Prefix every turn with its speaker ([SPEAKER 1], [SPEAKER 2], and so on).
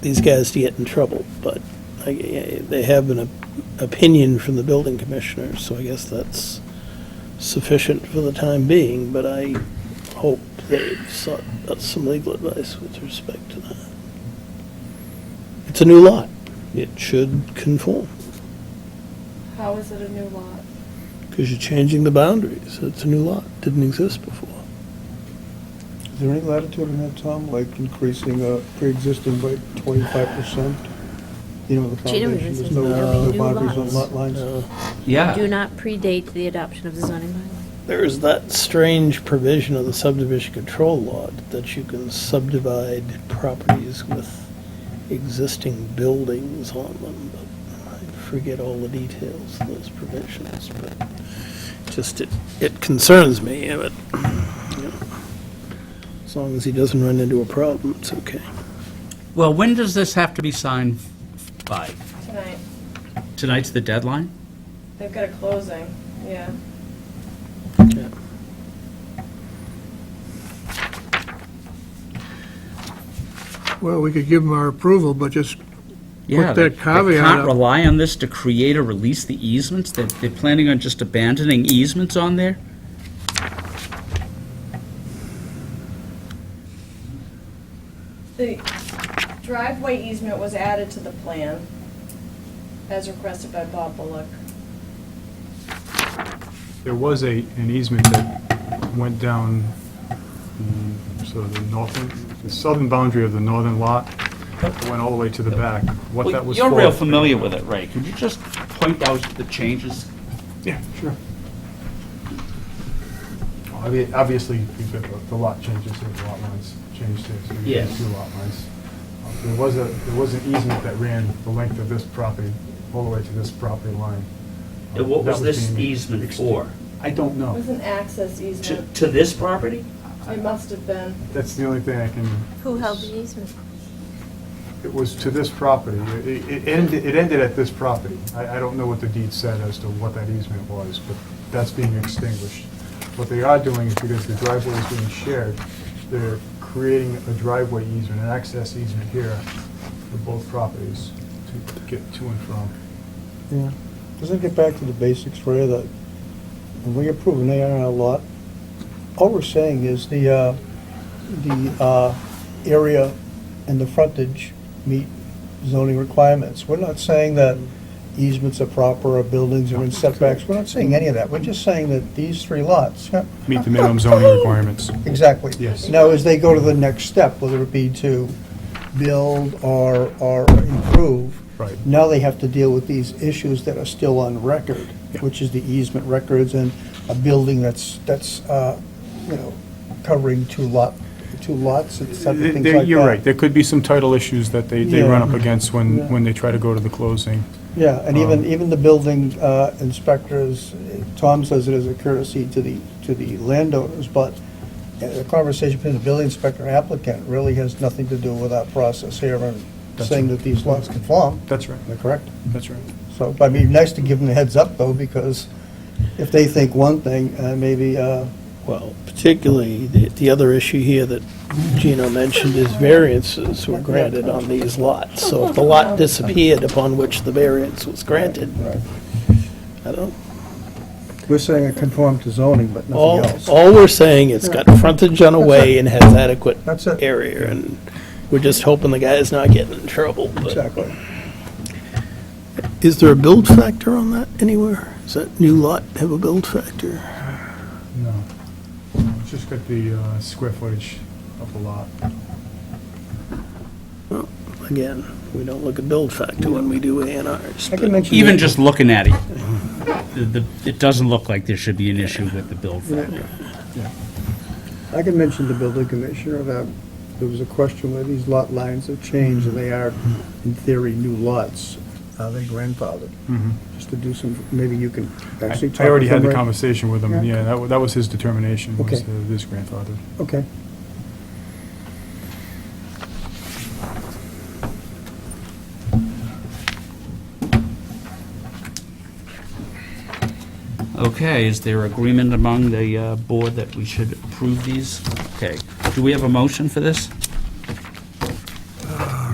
[SPEAKER 1] these guys to get in trouble, but I- I- they have an op- opinion from the building commissioner, so I guess that's sufficient for the time being, but I hope they sought out some legal advice with respect to that. It's a new lot. It should conform,
[SPEAKER 2] How is it a new lot?
[SPEAKER 1] because you're changing the boundaries. It's a new lot, didn't exist before.
[SPEAKER 3] Is there any latitude in that, Tom, like increasing uh, pre-existing by twenty-five percent? You know, the
[SPEAKER 4] Gee, no,
[SPEAKER 3] foundation,
[SPEAKER 4] this
[SPEAKER 3] there's
[SPEAKER 4] is
[SPEAKER 3] no
[SPEAKER 1] no
[SPEAKER 3] no
[SPEAKER 4] new
[SPEAKER 3] boundaries on
[SPEAKER 4] lots.
[SPEAKER 3] lot lines.
[SPEAKER 1] Uh,
[SPEAKER 4] Do
[SPEAKER 5] Yeah,
[SPEAKER 4] not predate the adoption of the zoning bylaw.
[SPEAKER 1] There's that strange provision of the subdivision control law that you can subdivide properties with existing buildings on them, but I forget all the details of those provisions, but just, it, it concerns me, yeah, but, you know, as long as he doesn't run into a problem, it's okay.
[SPEAKER 5] well, when does this have to be signed by?
[SPEAKER 2] Tonight,
[SPEAKER 5] Tonight's the deadline?
[SPEAKER 2] they've got a closing, yeah.
[SPEAKER 1] Yeah.
[SPEAKER 6] Well, we could give them our approval, but just,
[SPEAKER 5] Yeah,
[SPEAKER 6] Put that
[SPEAKER 5] they they
[SPEAKER 6] caveat
[SPEAKER 5] can't
[SPEAKER 6] up.
[SPEAKER 5] rely on this to create or release the easements? They're, they're planning on just abandoning easements on there?
[SPEAKER 2] The driveway easement was added to the plan as requested by Bob Bullock.
[SPEAKER 7] There was a, an easement that went down, mm, sort of the northern, the southern boundary of the northern lot, went all the way to the back. What that was for.
[SPEAKER 5] You're real familiar with it, Ray. Could you just point out the changes?
[SPEAKER 7] Yeah, sure. Well, I mean, Obviously, you've got the- the lot changes, and the lot lines changed too, so you
[SPEAKER 5] Yes.
[SPEAKER 7] have two lot lines. Um, There was a, there was an easement that ran the length of this property, all the way to this property line. Um,
[SPEAKER 5] What
[SPEAKER 7] that
[SPEAKER 5] was this
[SPEAKER 7] being-
[SPEAKER 5] easement for?
[SPEAKER 7] I don't
[SPEAKER 2] It
[SPEAKER 7] know.
[SPEAKER 2] was an access
[SPEAKER 5] To,
[SPEAKER 2] easement.
[SPEAKER 5] to this property?
[SPEAKER 2] It must have been.
[SPEAKER 7] That's the only thing I can
[SPEAKER 4] Who held the easement?
[SPEAKER 7] It was to this property. It- It ended, it ended at this property. I, I don't know what the deed said as to what that easement was, but that's being extinguished. What they are doing is because the driveway is being shared, they're creating a driveway easement, an access easement here for both properties to get to and from.
[SPEAKER 3] Yeah. Doesn't it get back to the basics, Ray, that when we approve an A and R lot, all we're saying is the, uh, the uh, area and the frontage meet zoning requirements. We're not saying that easements are proper, or buildings are in setbacks, we're not saying any of that. We're just saying that these three lots, yeah,
[SPEAKER 7] Meet the minimum zoning requirements.
[SPEAKER 3] Exactly.
[SPEAKER 7] Yes.
[SPEAKER 3] Now, as they go to the next step, whether it be to build or, or improve.
[SPEAKER 7] Right.
[SPEAKER 3] Now they have to deal with these issues that are still on record,
[SPEAKER 7] Yeah.
[SPEAKER 3] which is the easement records and a building that's, that's, uh, you know, covering two lot, two lots and stuff, things like that.
[SPEAKER 7] You're right. There could be some title issues that they, they run up
[SPEAKER 3] Yeah.
[SPEAKER 7] against when,
[SPEAKER 3] Yeah.
[SPEAKER 7] when they try to go to the closing.
[SPEAKER 3] Yeah, and even,
[SPEAKER 7] Um,
[SPEAKER 3] even the building uh, inspectors, Tom says it as a courtesy to the, to the landowners, but the conversation between the building inspector and applicant really has nothing to do with our process here and
[SPEAKER 7] That's
[SPEAKER 3] saying
[SPEAKER 7] right.
[SPEAKER 3] that these lots conform,
[SPEAKER 7] That's right.
[SPEAKER 3] they're correct.
[SPEAKER 7] That's right.
[SPEAKER 3] So, but it'd be nice to give them a heads up though, because if they think one thing, uh, maybe, uh,
[SPEAKER 1] Well, particularly, the, the other issue here that Gino mentioned is variances were granted on these lots. So if the
[SPEAKER 3] Oh.
[SPEAKER 1] lot disappeared upon which the variance was granted, I don't,
[SPEAKER 3] we're saying it conformed to zoning, but
[SPEAKER 1] all,
[SPEAKER 3] nothing else.
[SPEAKER 1] all we're saying, it's got frontage on a way and has adequate
[SPEAKER 3] That's it.
[SPEAKER 1] area, and we're just hoping the guy's not getting in trouble. but-
[SPEAKER 3] Exactly.
[SPEAKER 1] Is there a build factor on that anywhere? Does that new lot have a build factor?
[SPEAKER 7] No. It's just got the uh, square footage of the lot.
[SPEAKER 1] Well, again, we don't look at build factor when we do A and Rs.
[SPEAKER 3] I can mention.
[SPEAKER 5] Even just looking at it, the, the- it doesn't look like there should be an issue with the build factor.
[SPEAKER 6] I can mention the building commissioner that there was a question where these lot lines have changed, and they are, in theory, new lots. Are they grandfathered? Just to do some, maybe you can
[SPEAKER 7] I
[SPEAKER 6] actually talk
[SPEAKER 7] I already
[SPEAKER 6] with
[SPEAKER 7] had
[SPEAKER 6] them,
[SPEAKER 7] the
[SPEAKER 6] right?
[SPEAKER 7] conversation with him,
[SPEAKER 6] Yeah.
[SPEAKER 7] yeah, that wa- that was his determination, was
[SPEAKER 3] Okay.
[SPEAKER 7] uh, this grandfather.
[SPEAKER 3] Okay.
[SPEAKER 5] Okay, is there agreement among the uh, board that we should approve these? Okay, do we have a motion for this?